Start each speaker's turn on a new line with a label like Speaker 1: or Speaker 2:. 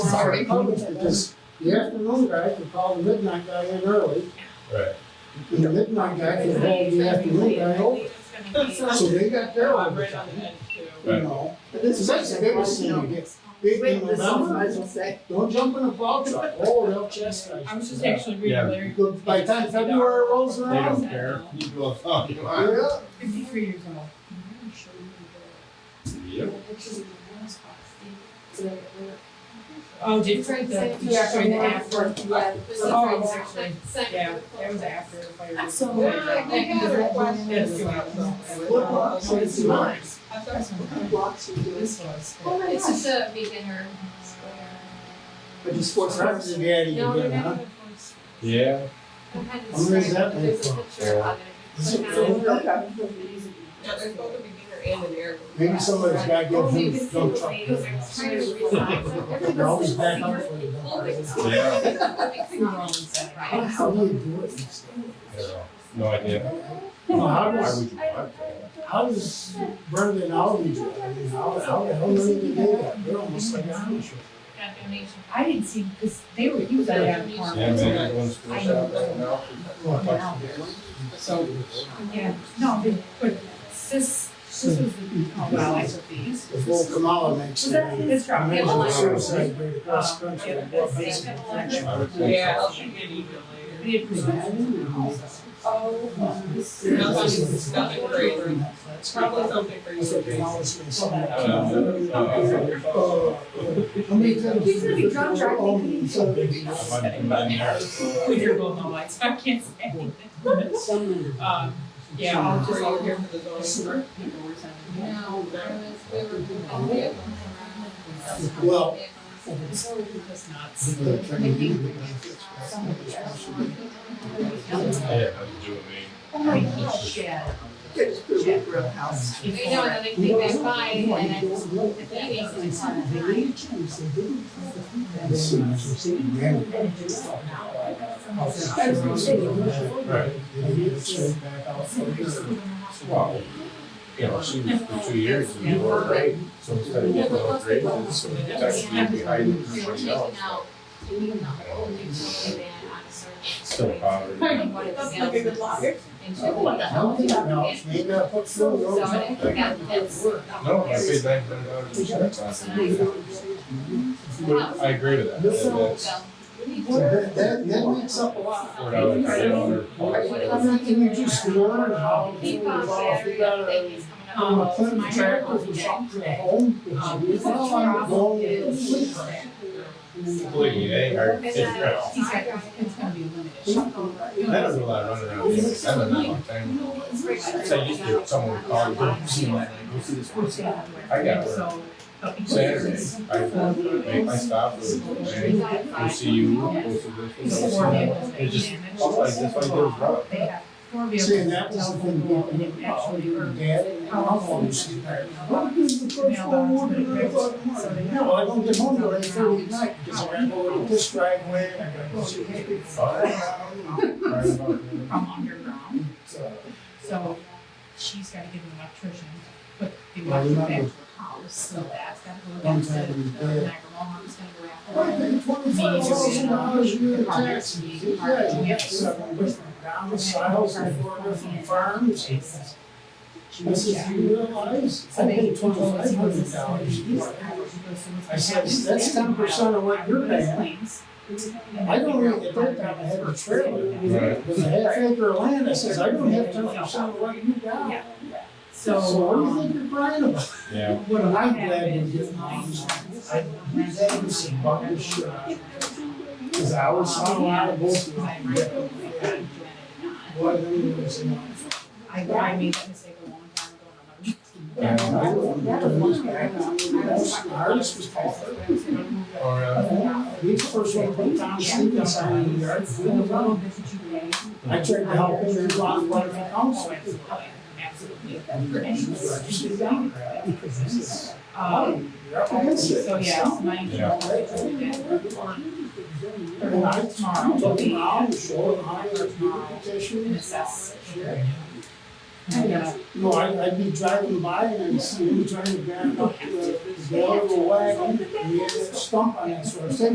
Speaker 1: It's
Speaker 2: hour
Speaker 1: already
Speaker 2: appointments
Speaker 1: voted.
Speaker 2: because the afternoon guy can call the midnight guy in early.
Speaker 3: Right.
Speaker 2: And the midnight guy can call the afternoon guy over. So they got their overtime, you know? So that's the biggest thing you get. Big in November, don't jump in a plow truck, oh, they'll chastise
Speaker 1: I was just
Speaker 2: you.
Speaker 1: actually
Speaker 3: Yeah.
Speaker 1: reading Larry.
Speaker 2: But By the time February rolls
Speaker 3: They
Speaker 2: around,
Speaker 3: don't care. You do a fuck you want.
Speaker 2: yeah,
Speaker 1: Fifty-three years old.
Speaker 3: Yep.
Speaker 1: Oh, did Frank the, yeah, during the after. Oh, Yeah, that was after. the fire.
Speaker 4: So-
Speaker 1: That- that- That's two hours old.
Speaker 2: Well, so it's mine.
Speaker 1: This was.
Speaker 4: It's just a beginner.
Speaker 2: but the sports reps are daddy
Speaker 4: No, they're
Speaker 2: again,
Speaker 4: not
Speaker 2: huh?
Speaker 4: even
Speaker 3: Yeah.
Speaker 4: I'm kind of
Speaker 2: Where is that
Speaker 4: describing,
Speaker 2: made
Speaker 4: there's a
Speaker 2: from?
Speaker 4: picture of
Speaker 2: Is it
Speaker 4: it.
Speaker 2: from-
Speaker 5: Yeah, there's both a beginner and an air.
Speaker 2: Maybe somebody's got to
Speaker 4: Well,
Speaker 2: go
Speaker 4: you
Speaker 2: through
Speaker 4: can
Speaker 2: the
Speaker 4: see the
Speaker 2: dump truck.
Speaker 4: way they're trying to resign, so everybody's
Speaker 2: They're always
Speaker 4: like,
Speaker 2: back up for you. don't
Speaker 4: "Oh, it's
Speaker 2: they?
Speaker 4: not- it's
Speaker 1: Yeah.
Speaker 4: not set
Speaker 2: I don't know
Speaker 4: right."
Speaker 2: How do you do it?
Speaker 3: Yeah. No idea.
Speaker 2: Well, How
Speaker 3: Why
Speaker 2: does,
Speaker 3: would you want that?
Speaker 2: how does Brendan Alvey do it? I mean, how, how the hell did they do that? They're almost like Amish.
Speaker 4: Got donation.
Speaker 1: I didn't see, because they were, you got out of farm.
Speaker 3: Yeah, man, everyone's school shop right now.
Speaker 2: Well,
Speaker 1: So, yeah, no, but- but sis, this was the, oh, well, I took these.
Speaker 2: Before Kamala makes it.
Speaker 1: Was that his truck?
Speaker 2: Imagine
Speaker 4: Yeah,
Speaker 2: the
Speaker 4: well,
Speaker 2: suicide rate across the
Speaker 1: uh,
Speaker 2: country.
Speaker 1: yeah,
Speaker 2: and what
Speaker 1: that's the
Speaker 2: basic
Speaker 4: second
Speaker 2: protection.
Speaker 3: I would think
Speaker 5: Yeah,
Speaker 3: so.
Speaker 5: I'll shoot you an email later.
Speaker 1: We had presented.
Speaker 5: Nothing, nothing crazy. It's probably something
Speaker 2: I think
Speaker 5: crazy.
Speaker 2: Kamala's gonna send that.
Speaker 3: Uh, uh,
Speaker 2: Uh, How many times?
Speaker 4: He's gonna be drunk driving.
Speaker 2: Oh, he's so big.
Speaker 3: I might be in there.
Speaker 1: We were both online, so I can't say anything. Um, yeah, I'll
Speaker 5: Were
Speaker 1: just
Speaker 5: you
Speaker 1: over
Speaker 5: here
Speaker 1: here.
Speaker 5: for the zoning?
Speaker 4: No, I was, we were doing all the other ones around.
Speaker 2: Well-
Speaker 1: That's nuts.
Speaker 2: People are trying to do it.
Speaker 3: Yeah, how you doing, man?
Speaker 1: Oh my gosh, yeah.
Speaker 4: They know another thing they buy and then it's the meeting is on.
Speaker 2: This is- man,
Speaker 3: Right.
Speaker 2: they get it straight back out for you.
Speaker 3: Well, you know, she was for two years in the lower grade, so instead of getting lower grades, it's actually behind everybody else.
Speaker 4: out, doing the whole new program on a certain.
Speaker 3: Still
Speaker 4: Like
Speaker 3: poverty.
Speaker 4: what it
Speaker 5: That's like a good
Speaker 4: sells.
Speaker 5: logic.
Speaker 4: And
Speaker 2: I
Speaker 4: so-
Speaker 2: don't know, you gotta put food
Speaker 4: So
Speaker 2: over
Speaker 4: I
Speaker 2: something.
Speaker 4: think that that's.
Speaker 3: No, I paid nine hundred dollars in insurance last year. But I agree with that.
Speaker 2: This
Speaker 3: That- That's
Speaker 4: So,
Speaker 2: So That, that, that makes up a lot.
Speaker 3: four dollars, five dollars.
Speaker 2: I mean, can you just learn how to,
Speaker 4: heat pump
Speaker 2: well, if you
Speaker 4: battery, I
Speaker 2: gotta,
Speaker 4: think is coming up.
Speaker 2: um, put a tractor for something at home?
Speaker 1: Um,
Speaker 2: It's not like going to the sleep.
Speaker 3: Believe me, they are, it's rough.
Speaker 1: He's got, it's gonna be limited.
Speaker 3: That was a lot of running around. That's been a long time. So I used to, someone called, go see my, go see this person. I got work
Speaker 1: So.
Speaker 3: Saturday. I make my stop, go to go see you, go see this, go see that. It's just, stuff like this, like goes rough.
Speaker 1: They have four vehicles.
Speaker 2: See, and that was the thing,
Speaker 1: telephone
Speaker 2: about
Speaker 1: pole,
Speaker 2: me,
Speaker 1: and
Speaker 2: how
Speaker 1: actually,
Speaker 2: your
Speaker 1: or-
Speaker 2: dad, how I'm always getting tired. What is the first one we're gonna do about tomorrow? Yeah, well, I don't get home till eight thirty at night, because I gotta go over this driveway, and I gotta go see this big fire.
Speaker 1: From underground,
Speaker 2: So,
Speaker 1: so she's gotta get an electrician, but they
Speaker 2: Well,
Speaker 1: want to
Speaker 2: you
Speaker 1: go back
Speaker 2: know-
Speaker 1: to her house, so that's gotta go
Speaker 2: One
Speaker 1: against the, the
Speaker 2: time we did.
Speaker 1: Niagara Mohawk's gonna go after.
Speaker 2: I think twenty-five thousand dollars a year in taxes, yeah, you have seven different domiciles and four different farms. This is, you realize, I paid twenty-five hundred dollars for it. I said, that's 10% of what you're paying. I don't really think I have a trailer,
Speaker 3: Right.
Speaker 2: with a half acre of land, I says, I don't have ten percent of what you got.
Speaker 1: Yeah.
Speaker 2: So what do you
Speaker 1: um,
Speaker 2: think you're crying about?
Speaker 3: Yeah.
Speaker 1: What I'm
Speaker 2: I'm
Speaker 1: glad
Speaker 2: glad
Speaker 1: is
Speaker 2: we
Speaker 1: just
Speaker 2: did moms.
Speaker 1: I,
Speaker 2: I-
Speaker 1: that was some bummer shit.
Speaker 2: Cause I was on a lot of bullshit.
Speaker 1: I,
Speaker 2: What, I mean, it was, you know,
Speaker 1: I made that mistake a long time ago.
Speaker 2: I don't know, it was bad. Most- the hardest was Paul.
Speaker 3: Or, uh,
Speaker 2: We first went to town, sleeping sign in the yard, we didn't know. I tried to help him, he wanted one of the council. She's down.
Speaker 1: Um, so yeah, it's my.
Speaker 3: Yeah.
Speaker 2: And I tomorrow,
Speaker 1: Tomorrow,
Speaker 2: took
Speaker 1: we
Speaker 2: him
Speaker 1: have
Speaker 2: out, showed him how to do the
Speaker 1: an
Speaker 2: petition.
Speaker 1: assessment.
Speaker 2: No, I, I'd be driving by and I'd see him trying to grab up the, the wagon, and he had that stump on that sort of thing.